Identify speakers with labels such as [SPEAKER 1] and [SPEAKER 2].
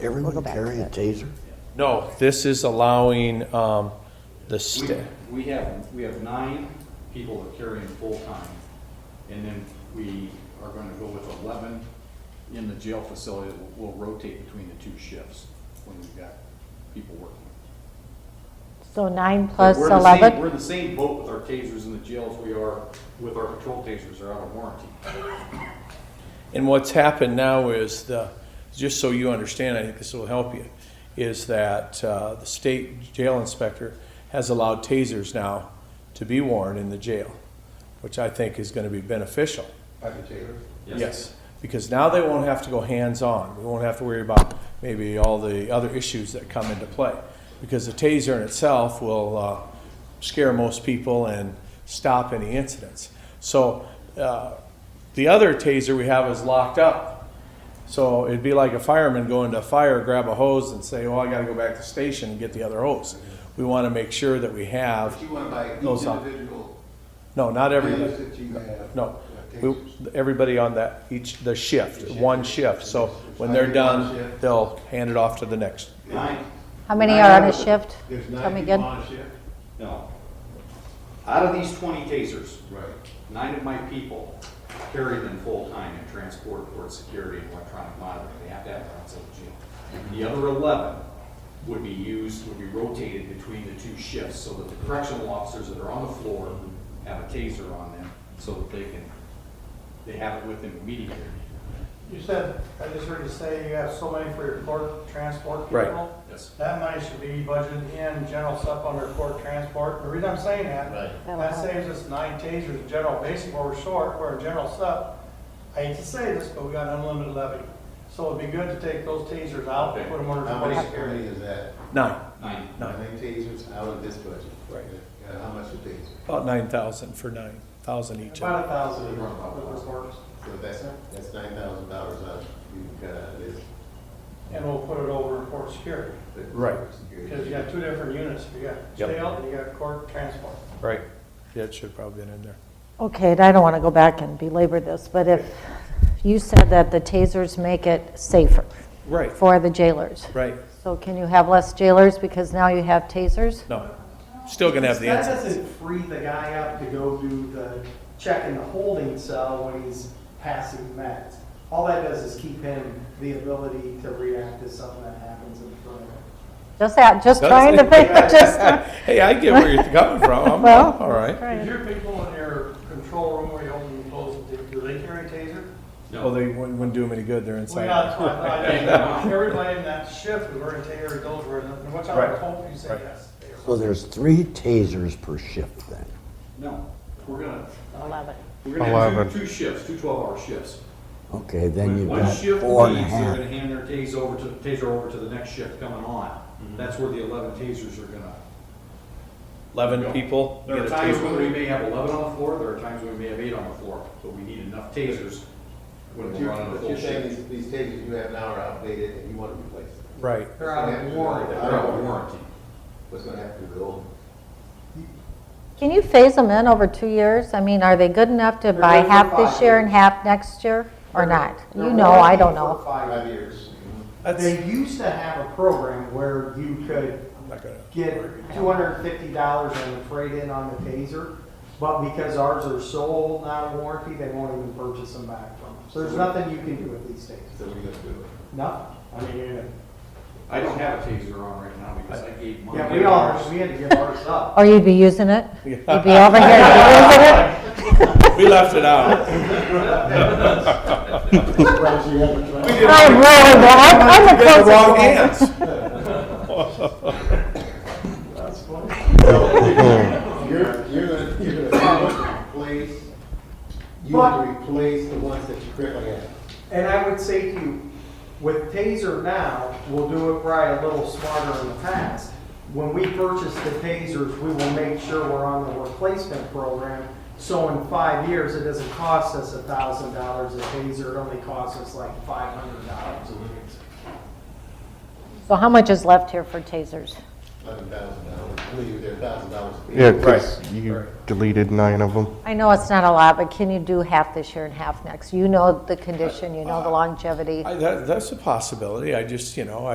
[SPEAKER 1] everyone
[SPEAKER 2] back to
[SPEAKER 1] carry a
[SPEAKER 2] it.
[SPEAKER 1] taser?
[SPEAKER 3] No, this is allowing um, the
[SPEAKER 4] We,
[SPEAKER 3] sta-
[SPEAKER 4] we have, we have nine people that carry in full-time, and then we are gonna go with eleven in the jail facility, that will rotate between the two shifts when we've got people working.
[SPEAKER 5] So nine plus
[SPEAKER 4] We're in the same- We're
[SPEAKER 5] 11,
[SPEAKER 4] in the same boat with our tasers in the jails we are with our patrol tasers, they're out of warranty.
[SPEAKER 3] And what's happened now is the, just so you understand, I think this will help you, is that uh, the state jail inspector has allowed tasers now to be worn in the jail, which I think is going to be beneficial. Yes, because now they won't have to go hands-on. We won't have to worry about maybe all the other issues that come into play. Because the taser in itself will uh, scare most people and stop any incidents. So uh, the other taser we have is locked up. So it'd be like a fireman going to a fire, grab a hose and say, well, I gotta go back to the station and get the other hose. We wanna make sure that we have,
[SPEAKER 6] But you want to buy each
[SPEAKER 3] Those up.
[SPEAKER 6] individual
[SPEAKER 3] no, not everybody.
[SPEAKER 6] bills that you have.
[SPEAKER 3] No,
[SPEAKER 6] uh,
[SPEAKER 3] we,
[SPEAKER 6] tasers.
[SPEAKER 3] everybody on that, each, the shift, one shift, so when they're done, they'll hand it off to the next.
[SPEAKER 4] Nine,
[SPEAKER 5] how many
[SPEAKER 4] nine
[SPEAKER 5] are
[SPEAKER 4] out
[SPEAKER 5] on a
[SPEAKER 4] of the-
[SPEAKER 5] shift?
[SPEAKER 6] There's
[SPEAKER 5] Tell
[SPEAKER 6] nine
[SPEAKER 5] me
[SPEAKER 6] people
[SPEAKER 5] again.
[SPEAKER 6] on a shift?
[SPEAKER 4] No. Out of these twenty tasers,
[SPEAKER 6] Right.
[SPEAKER 4] Nine of my people carry them full-time and transport for security and electronic monitoring. They have to have it outside the jail. The other eleven would be used, would be rotated between the two shifts so that the correctional officers that are on the floor have a taser on them so that they can, they have it with them immediately.
[SPEAKER 7] You said, I just heard you say you have so many for your court transport
[SPEAKER 3] Right.
[SPEAKER 7] people.
[SPEAKER 4] Yes.
[SPEAKER 7] That money should be budgeted in general stuff under court transport. The reason I'm saying that,
[SPEAKER 5] That'll
[SPEAKER 7] that
[SPEAKER 5] help.
[SPEAKER 7] saves us nine tasers in general basic where we're short, where in general stuff. I hate to say this, but we got unlimited levy. So it'd be good to take those tasers out and put them under
[SPEAKER 6] How many
[SPEAKER 7] court
[SPEAKER 6] security
[SPEAKER 7] security.
[SPEAKER 6] is that?
[SPEAKER 3] Nine,
[SPEAKER 4] Nine.
[SPEAKER 6] How many tasers out of this budget?
[SPEAKER 3] Right.
[SPEAKER 6] Yeah, How much a taser?
[SPEAKER 3] about nine thousand for nine thousand each.
[SPEAKER 7] About a thousand of those reports.
[SPEAKER 6] So that's, that's nine thousand dollars out, you've got out of this.
[SPEAKER 7] And we'll put it over in court security.
[SPEAKER 6] but
[SPEAKER 3] Right.
[SPEAKER 6] security.
[SPEAKER 7] Because you got two different units. You got
[SPEAKER 3] Yep.
[SPEAKER 7] jail and you got court transport.
[SPEAKER 3] Right, yeah, it should probably been in there.
[SPEAKER 5] Okay, and I don't want to go back and belabor this, but if, you said that the tasers make it safer
[SPEAKER 3] Right,
[SPEAKER 5] for the jailers.
[SPEAKER 3] right,
[SPEAKER 5] So can you have less jailers because now you have tasers?
[SPEAKER 3] no, still gonna have the
[SPEAKER 8] That
[SPEAKER 3] answer.
[SPEAKER 8] doesn't free the guy up to go do the check in the holding cell when he's passing meds. All that does is keep him the ability to react to something that happens in front of him.
[SPEAKER 5] Just that, just
[SPEAKER 3] Does
[SPEAKER 5] trying to,
[SPEAKER 3] it?
[SPEAKER 5] think- just,
[SPEAKER 3] Hey, I get where you're coming from, I'm,
[SPEAKER 5] Well-
[SPEAKER 3] all right.
[SPEAKER 7] Is your people in your control room where you open and close, do do they carry a taser?
[SPEAKER 3] Well, Oh, they wouldn't wouldn't do them any good, they're
[SPEAKER 7] Well, yeah,
[SPEAKER 3] inside.
[SPEAKER 7] that's what I thought. Everybody in that shift is wearing tasers, those were, and what's our
[SPEAKER 3] Right.
[SPEAKER 7] hope, you say
[SPEAKER 3] Right.
[SPEAKER 7] yes. they are.
[SPEAKER 1] So there's three tasers per shift then?
[SPEAKER 4] No, we're gonna,
[SPEAKER 5] 11.
[SPEAKER 4] we're gonna have two, two shifts, two twelve-hour shifts.
[SPEAKER 1] Okay, then you've
[SPEAKER 4] When
[SPEAKER 1] got
[SPEAKER 4] One shift
[SPEAKER 1] four and a
[SPEAKER 4] leaves, they're
[SPEAKER 1] half.
[SPEAKER 4] gonna hand their taser over to, taser over to the next shift coming on. That's where the eleven tasers are gonna.
[SPEAKER 3] Eleven people.
[SPEAKER 4] There
[SPEAKER 3] get
[SPEAKER 4] are
[SPEAKER 3] a
[SPEAKER 4] times
[SPEAKER 3] taser.
[SPEAKER 4] when we may have eleven on the floor, there are times when we may have eight on the floor, but we need enough tasers when
[SPEAKER 6] But
[SPEAKER 4] we're
[SPEAKER 6] you're,
[SPEAKER 4] running a
[SPEAKER 6] but
[SPEAKER 4] full
[SPEAKER 6] you're
[SPEAKER 4] shift.
[SPEAKER 6] saying these, these tasers you have now are outdated and you want to replace them.
[SPEAKER 3] Right,
[SPEAKER 6] They're out of warranty.
[SPEAKER 4] They're out of warranty.
[SPEAKER 6] What's going to happen to the old?
[SPEAKER 5] Can you phase them in over two years? I mean, are they good enough to
[SPEAKER 8] They're
[SPEAKER 5] buy
[SPEAKER 8] good for
[SPEAKER 5] half this
[SPEAKER 8] five
[SPEAKER 5] year
[SPEAKER 8] years.
[SPEAKER 5] and half next year, or not?
[SPEAKER 8] They're
[SPEAKER 5] You know, I don't
[SPEAKER 8] warranted for
[SPEAKER 5] know.
[SPEAKER 8] five
[SPEAKER 6] Five
[SPEAKER 8] years.
[SPEAKER 6] years.
[SPEAKER 8] They used to have a program where you could
[SPEAKER 3] I'm not gonna-
[SPEAKER 8] get two hundred and fifty dollars on the trade-in on the taser, but because ours are sold out of warranty, they won't even purchase them back from us. So there's nothing you can do with these tasers,
[SPEAKER 6] So we're going to do it.
[SPEAKER 8] nothing. I mean, you-
[SPEAKER 4] I don't have a taser on right now because I gave mine.
[SPEAKER 8] yeah, we all, we had to give ours up.
[SPEAKER 5] Or you'd be using it?
[SPEAKER 3] Yeah.
[SPEAKER 5] You'd be over here using it?
[SPEAKER 3] We left it out.
[SPEAKER 5] I'm really bad, I'm I'm the
[SPEAKER 3] Did the
[SPEAKER 5] closest
[SPEAKER 3] wrong
[SPEAKER 5] one.
[SPEAKER 3] hands.
[SPEAKER 6] You're, you're gonna, you're gonna replace, you want to replace the ones that you currently have.
[SPEAKER 8] And I would say to you, with Taser now, we'll do it right a little smarter in the past. When we purchase the Tasers, we will make sure we're on the replacement program. So in five years, it doesn't cost us a thousand dollars a Taser, it only costs us like five hundred dollars a Taser.
[SPEAKER 5] So how much is left here for tasers?
[SPEAKER 6] Eleven thousand dollars, I believe they're thousand dollars.
[SPEAKER 9] Yeah, because you deleted nine of them.
[SPEAKER 5] I know it's not a lot, but can you do half this year and half next? You know the condition, you know the longevity.
[SPEAKER 3] I- That, that's a possibility, I just, you know, I.